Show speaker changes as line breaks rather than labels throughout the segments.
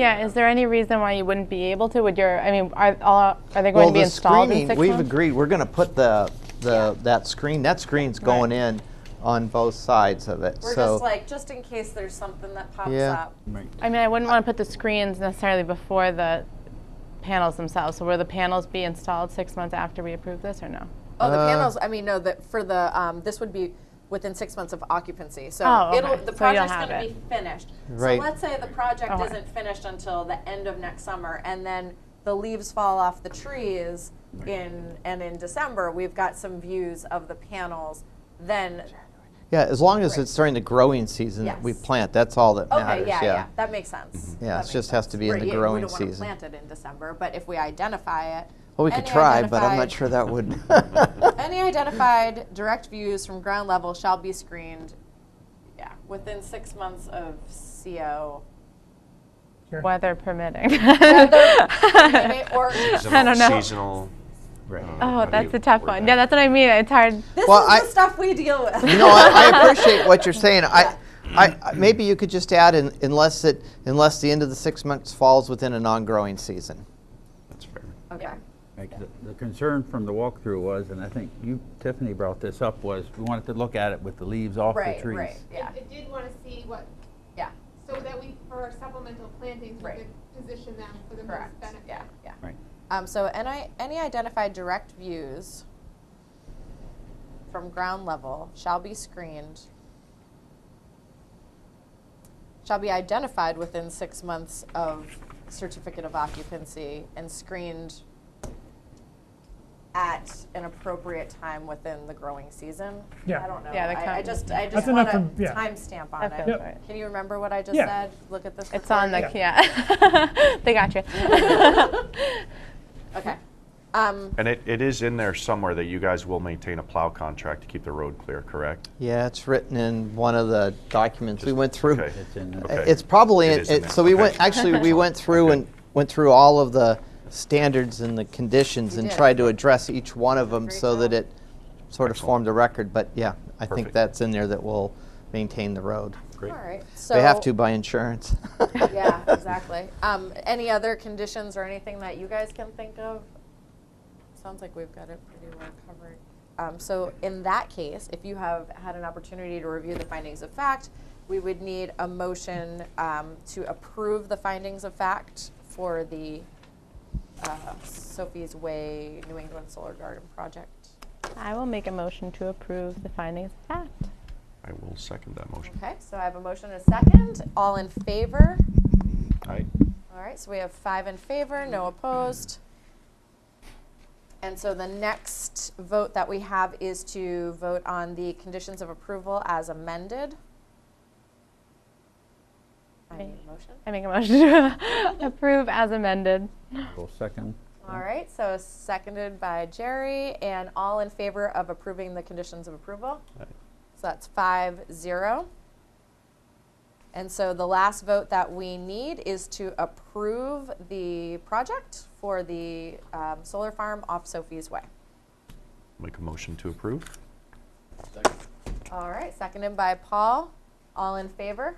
Yeah, is there any reason why you wouldn't be able to? Would your, I mean, are, all- are they going to be
the
installed in
screening,
six
we've
months?
agreed we're going to put the the that screen. That screen's going in on both sides of it.
We're
so
just like, just in case there's something that pops
Yeah.
up.
I mean, I wouldn't want to put the screens necessarily before the panels themselves. So will the panels be installed six months after we approve this or no?
Oh, the
Uh,
panels. I mean, no, that for the um, this would be within six months of occupancy. So
Oh, okay.
it'll the
So you'll
project's
have
going to
it. Oh,
be finished.
Right.
So let's say the project
Okay.
isn't finished until the end of next summer, and then the leaves fall off the trees in and in December we've got some views of the panels. Then
yeah, as long as it's during the growing season that we
Yes.
plant, that's all that
okay,
matters.
yeah, yeah,
yeah.
that makes sense.
Mm-hmm.
Yeah, it
That makes
just has to be in
Right,
the
yeah,
growing
We don't
season.
want to plant it in December, but if we identify it.
Well, we could
any
try, but I'm not
identified-
sure that would.
Any identified direct views from ground level shall be screened, yeah, within six months of CO.
Weather permitting.
Or,
I don't know.
Seasonal. Right.
Uh,
Oh, that's a tough one. Yeah, that's what I mean. It's hard.
this
Well,
is
I-
the stuff we deal with.
you know, I, I appreciate what you're saying. I, I, I- maybe you could just add, in, unless it, unless the end of the six months falls within a non-growing season.
That's fair.
Okay.
Like, the- The concern from the walkthrough was, and I think you, Tiffany brought this up, was we wanted to look at it with the leaves off the
Right,
trees.
right, yeah,
I I did want to see what,
yeah,
so that we, for our supplemental plantings, we
Right.
could position them for the most
correct,
benefit.
yeah, yeah.
Right.
Um, so any, any identified direct views from ground level shall be screened, shall be identified within six months of certificate of occupancy and screened at an appropriate time within the growing season.
Yeah.
I don't know.
Yeah, that
I, I
count-
just, I just
That's
want
enough
a
to- yeah.
timestamp on
That
it.
feels Yep. right.
Can you remember what I just
Yeah.
said? Look at this.
It's on the,
recording.
yeah. They got you.
Okay. Um,
And it, it is in there somewhere that you guys will maintain a plow contract to keep the road clear, correct?
Yeah, it's written in one of the documents we went through.
Okay.
It's in, the-
Okay.
It's probably
It
in-
is in
it-
there.
so we
Okay.
went actually we went through
Okay.
and went through all of the standards and the conditions
You
and
did.
tried to address each one of them
Great
so that
job.
it sort of
Excellent.
formed a record. But yeah, I think
Perfect.
that's in there that will maintain the road.
Great.
all right. So
They have to by insurance.
yeah, exactly. Um, any other conditions or anything that you guys can think of? Sounds like we've got it pretty well covered. Um, so in that case, if you have had an opportunity to review the findings of fact, we would need a motion um, to approve the findings of fact for the uh, Sophie's Way New England Solar Garden project.
I will make a motion to approve the findings of fact.
I will second that motion.
Okay, so I have a motion and a second. All in favor?
All right.
All right, so we have five in favor, no opposed. And so the next vote that we have is to vote on the conditions of approval as amended. I need a motion.
I make a motion to approve as amended.
well, second.
All right, so seconded by Jerry, and all in favor of approving the conditions of approval?
Aye.
So that's five, zero. And so the last vote that we need is to approve the project for the um, solar farm off Sophie's Way.
Make a motion to approve.
All right, seconded by Paul, all in favor?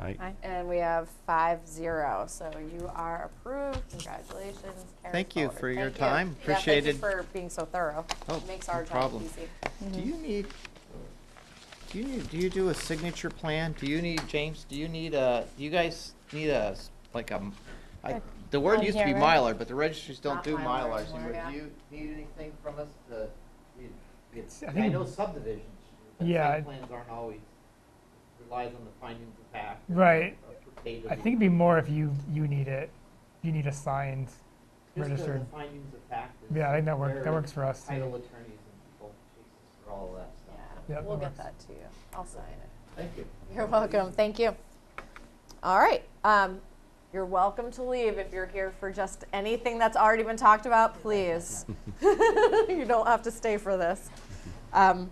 All right.
Aye.
And we have five, zero, so you are approved, congratulations, carry
Thank you
forward.
for your
Thank you.
time.
Yeah, thank you
Appreciated.
for being so thorough,
Oh,
makes
no
our job
problem.
easy.
Do you need, do you need, do you do a signature plan? Do you need, James, do you need a, do you guys need a, s- like a, m- I, the word
On
used to be
here, right?
Mylar, but the registries don't
Not
do
Mylar
Mylars anymore.
anymore, yeah.
Do you need anything from us to, it- it's,
I
I
think-
know subdivisions, but
Yeah,
site
I-
plans aren't always, relies on the findings of fact. and
Right.
a date of
I
the-
think it'd be more if you, you need it, you need a signed,
just the
registered.
Findings of fact. is
Yeah, I think that work, that
where
works for us.
Title attorneys and people chase us for all of that stuff.
Yeah,
Yep,
we'll
that
get
works.
that to you. I'll sign it.
Thank you.
You're welcome. Thank you. All right. Um, you're welcome to leave if you're here for just anything that's already been talked about, please. you don't have to stay for this. Um,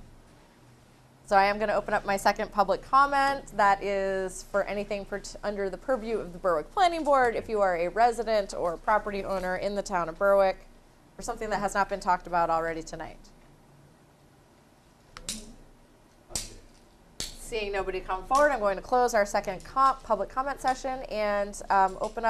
so I am going to open up my second public comment. That is for anything per under the purview of the Berwick Planning Board. If you are a resident or property owner in the town of Berwick, for something that has not been talked about already tonight. Seeing nobody come forward, I'm going to close our second comp, public comment session and um, open up.